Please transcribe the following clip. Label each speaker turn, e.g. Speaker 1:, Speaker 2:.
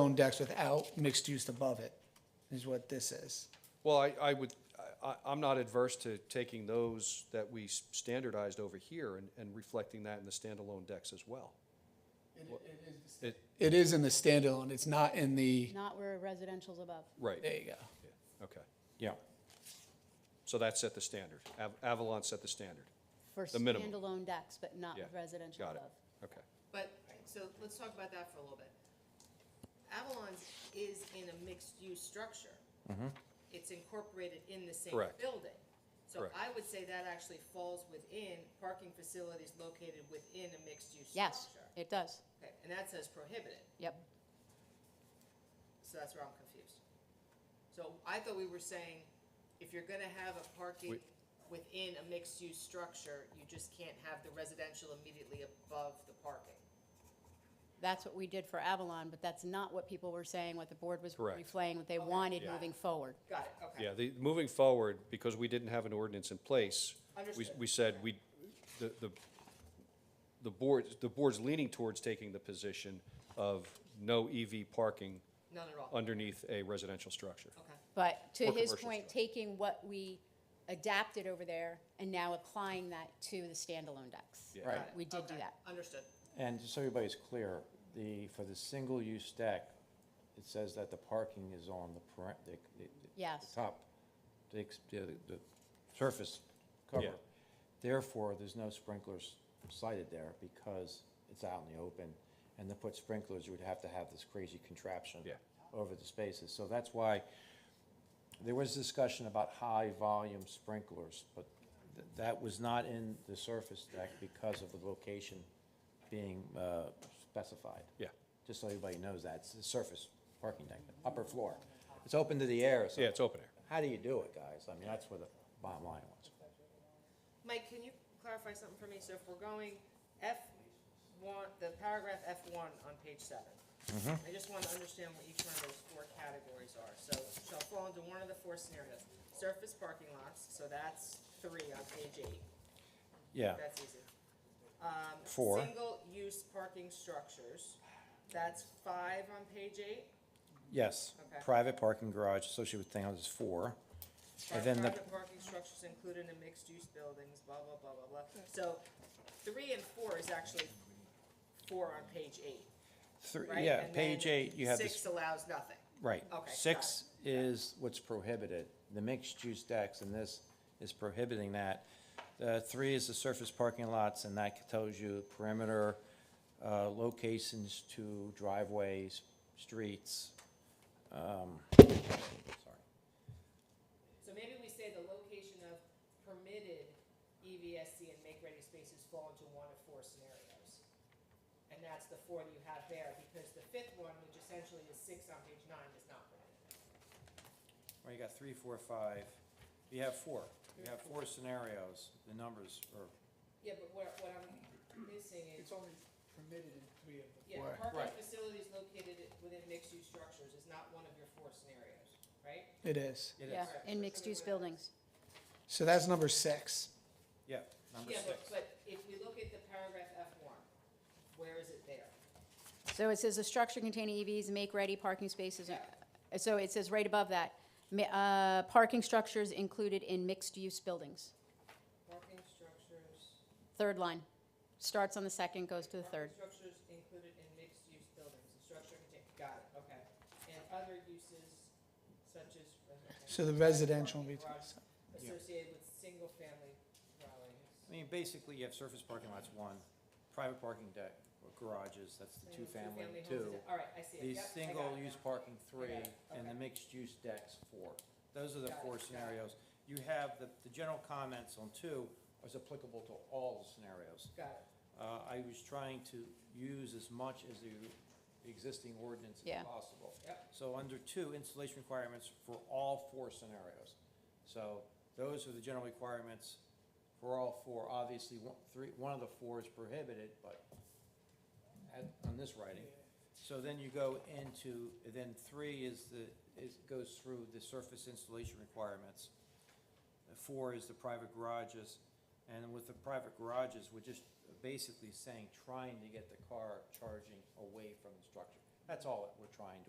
Speaker 1: own decks without mixed use above it, is what this is.
Speaker 2: Well, I, I would, I- I, I'm not adverse to taking those that we s- standardized over here and, and reflecting that in the standalone decks as well. It,
Speaker 1: It is in the standalone, it's not in the,
Speaker 3: Not where residential's above.
Speaker 2: right,
Speaker 1: there you go.
Speaker 2: okay.
Speaker 4: Yeah.
Speaker 2: So that set the standard. Av- Avalon set the standard.
Speaker 3: For
Speaker 2: The minimum.
Speaker 3: standalone decks, but not
Speaker 2: Yeah,
Speaker 3: residential
Speaker 2: Got it.
Speaker 3: above.
Speaker 2: Okay.
Speaker 5: But, so let's talk about that for a little bit. Avalon's is in a mixed-use structure. It's incorporated in the same
Speaker 2: Mm-hmm. Correct.
Speaker 5: building. So
Speaker 2: Correct.
Speaker 5: I would say that actually falls within parking facilities located within a mixed-use structure.
Speaker 3: Yes, it does.
Speaker 5: Okay, and that says prohibited,
Speaker 3: Yep.
Speaker 5: so that's where I'm confused. So I thought we were saying, if you're gonna have a parking
Speaker 2: Wait.
Speaker 5: within a mixed-use structure, you just can't have the residential immediately above the parking.
Speaker 3: That's what we did for Avalon, but that's not what people were saying, what the board was
Speaker 2: Correct.
Speaker 3: replaying, what they wanted
Speaker 5: Yeah.
Speaker 3: moving forward.
Speaker 5: Got it, okay.
Speaker 2: Yeah, the, moving forward, because we didn't have an ordinance in place, we,
Speaker 5: Understood.
Speaker 2: we said we, the, the, the board, the board's leaning towards taking the position of no EV parking
Speaker 5: None at all,
Speaker 2: underneath a residential structure.
Speaker 5: okay.
Speaker 3: But to
Speaker 2: Or
Speaker 3: his
Speaker 2: commercial
Speaker 3: point, taking what we adapted over there and now applying that to the standalone decks.
Speaker 2: Yeah.
Speaker 4: Right.
Speaker 5: Got it.
Speaker 3: We did do
Speaker 5: Okay,
Speaker 3: that.
Speaker 5: Understood.
Speaker 4: And just so everybody's clear, the, for the single-use deck, it says that the parking is on the parent, the, the- the
Speaker 3: Yes.
Speaker 4: top, the, ex- the, the surface cover.
Speaker 2: Yeah.
Speaker 4: Therefore, there's no sprinklers sited there because it's out in the open. And to put sprinklers, you would have to have this crazy contraption
Speaker 2: Yeah.
Speaker 4: over the spaces. So that's why there was discussion about high-volume sprinklers, but th- that was not in the surface deck because of the location being uh, specified.
Speaker 2: Yeah.
Speaker 4: Just so everybody knows that, it's the surface parking deck, the upper floor. It's open to the air, so.
Speaker 2: Yeah, it's open air.
Speaker 4: How do you do it, guys? I mean, that's where the bottom line was.
Speaker 5: Mike, can you clarify something for me? So if we're going F one, the paragraph F one on page seven. I just want to understand what each one of those four categories are. So shall fall into one of the four scenarios. Surface parking lots, so that's three on page eight.
Speaker 4: Yeah,
Speaker 5: That's easy. Um,
Speaker 4: Four.
Speaker 5: Single-use parking structures, that's five on page eight.
Speaker 4: yes.
Speaker 5: Okay.
Speaker 4: Private parking garage associated with townhouses, four.
Speaker 5: Are
Speaker 4: And then the,
Speaker 5: private parking structures included in mixed-use buildings, blah, blah, blah, blah, blah. So three and four is actually four on page eight,
Speaker 4: three-
Speaker 5: right?
Speaker 4: yeah,
Speaker 5: And
Speaker 4: page
Speaker 5: then
Speaker 4: eight, you have this.
Speaker 5: Six allows nothing.
Speaker 4: Right.
Speaker 5: Okay, got
Speaker 4: Six is what's prohibited, the mixed-use decks, and this is prohibiting that. Uh, three is the surface parking lots, and that tells you perimeter, uh, locations to driveways, streets. Um, sorry.
Speaker 5: So maybe we say the location of permitted E EVSC and make-ready spaces fall into one of four scenarios. And that's the four that you have there, because the fifth one, which essentially is six on page nine, is not permitted.
Speaker 4: Well, you got three, four, five, you have four, you have four scenarios, the numbers are,
Speaker 5: Yeah, but what, what I'm missing is.
Speaker 1: It's only permitted in three of the
Speaker 5: Yeah,
Speaker 1: four.
Speaker 5: parking
Speaker 4: Right.
Speaker 5: facilities located i- within mixed-use structures is not one of your four scenarios, right?
Speaker 1: It is.
Speaker 4: it
Speaker 3: Yeah,
Speaker 4: is,
Speaker 3: in mixed-use buildings.
Speaker 1: So that's number six.
Speaker 4: yeah, number
Speaker 5: Yeah,
Speaker 4: six.
Speaker 5: but, but if we look at the paragraph F one, where is it there?
Speaker 3: So it says a structure containing E EVs, make-ready parking spaces, uh, so it says right above that, ma- uh, parking structures included in mixed-use buildings.
Speaker 5: Parking structures,
Speaker 3: Third line, starts on the second, goes to the third.
Speaker 5: parking structures included in mixed-use buildings, the structure contain, got it, okay. And other uses such as.
Speaker 1: So the residential will be,
Speaker 5: Garage Associated with single-family dwellings.
Speaker 4: I mean, basically, you have surface parking lots, one, private parking deck, or garages, that's the
Speaker 5: and
Speaker 4: two-family,
Speaker 5: homes is-
Speaker 4: two.
Speaker 5: All right, I see it,
Speaker 4: These
Speaker 5: yep, I got it
Speaker 4: single-use
Speaker 5: now.
Speaker 4: parking, three,
Speaker 5: it,
Speaker 4: and the
Speaker 5: okay.
Speaker 4: mixed-use decks, four. Those are the
Speaker 5: Got it,
Speaker 4: four
Speaker 5: got it.
Speaker 4: scenarios. You have, the, the general comments on two is applicable to all scenarios.
Speaker 5: Got it.
Speaker 4: Uh, I was trying to use as much as the existing ordinance
Speaker 3: Yeah.
Speaker 4: as possible.
Speaker 5: Yep.
Speaker 4: So under two, installation requirements for all four scenarios. So those are the general requirements for all four. Obviously, one, three, one of the four is prohibited, but at, on this writing. So then you go into, then three is the, is, goes through the surface installation requirements. Uh, Four is the private garages, and with the private garages, we're just basically saying, trying to get the car charging away from the structure. That's all we're trying to